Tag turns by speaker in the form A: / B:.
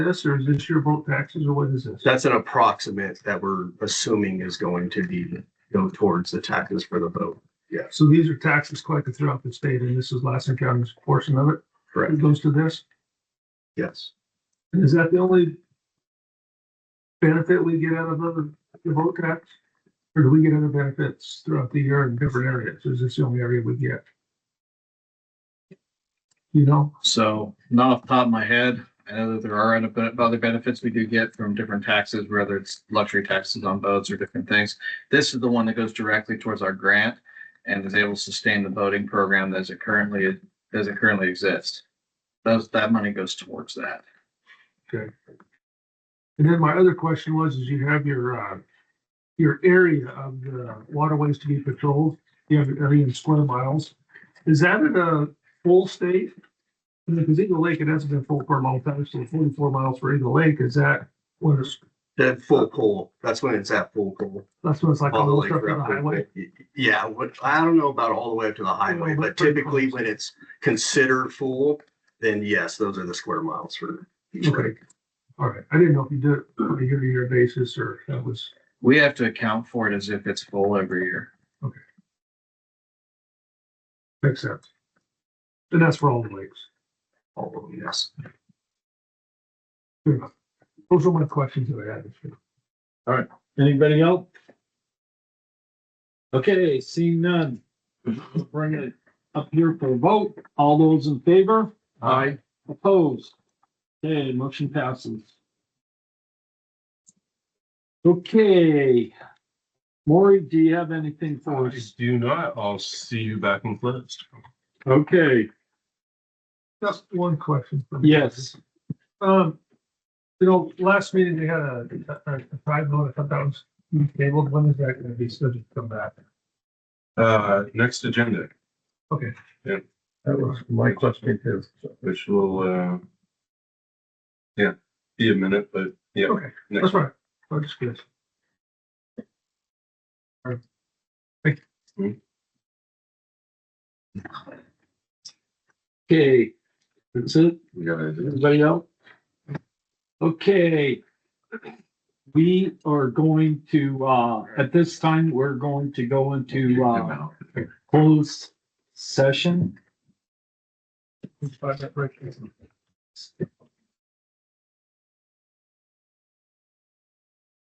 A: this, or is this your boat taxes, or what is this?
B: That's an approximate that we're assuming is going to be, go towards the taxes for the boat.
A: So these are taxes collected throughout the state, and this is Lassen County's portion of it.
B: Correct.
A: It goes to this,
B: Yes.
A: and is that the only benefit we get out of other, the boat tax? Or do we get other benefits throughout the year in different areas? Is this the only area we get? You know,
C: So not off the top of my head, I know that there are other ben- other benefits we do get from different taxes, whether it's luxury taxes on boats or different things. This is the one that goes directly towards our grant and is able to sustain the boating program as it currently, as it currently exists. Those, that money goes towards that.
A: and then my other question was, is you have your, uh, your area of the waterways to be patrolled, you have an area in square miles. Is that in a full state? Because Eagle Lake, it hasn't been full for a long time, so forty-four miles for Eagle Lake, is that what it's
B: That full pull, that's when it's at full pull.
A: That's what it's like on
B: all the
A: the
B: way
A: stuff on the
B: throughout the-
A: highway.
B: Yeah, what, I don't know about all the way up to the highway,
A: but
B: but
A: pretty
B: typically
A: close.
B: when it's considered full, then yes, those are the square miles for each
A: Okay.
B: lake.
A: All right. I didn't know if you did it on a year-to-year basis or if that was,
C: We have to account for it as if it's full every year.
A: makes sense. And that's for all the lakes.
B: all of them, yes.
A: Fair enough. Those are my questions that I had.
D: Anybody else? Okay, seeing none. Let's Bring it up here for a vote. All those in favor? Aye. Opposed? Okay, motion passes. Okay. Maury, do you have anything for
E: I
D: us?
E: do not. I'll see you back in class.
D: Okay,
A: Just one question. for me.
D: yes,
A: Um, you know, last meeting, they had a, a, a five vote, I thought that was tabled. When is that going to be scheduled to come back?
E: Uh, next agenda,
F: That was my question too.
E: which will, uh, yeah, be a minute, but yeah.
A: Okay,
E: next.
A: that's right. I'm just curious.
D: okay. That's it.
E: We got it.
D: Anybody else? Okay. We are going to, uh, at this time, we're going to go into, uh, closed session.
A: Five minute break.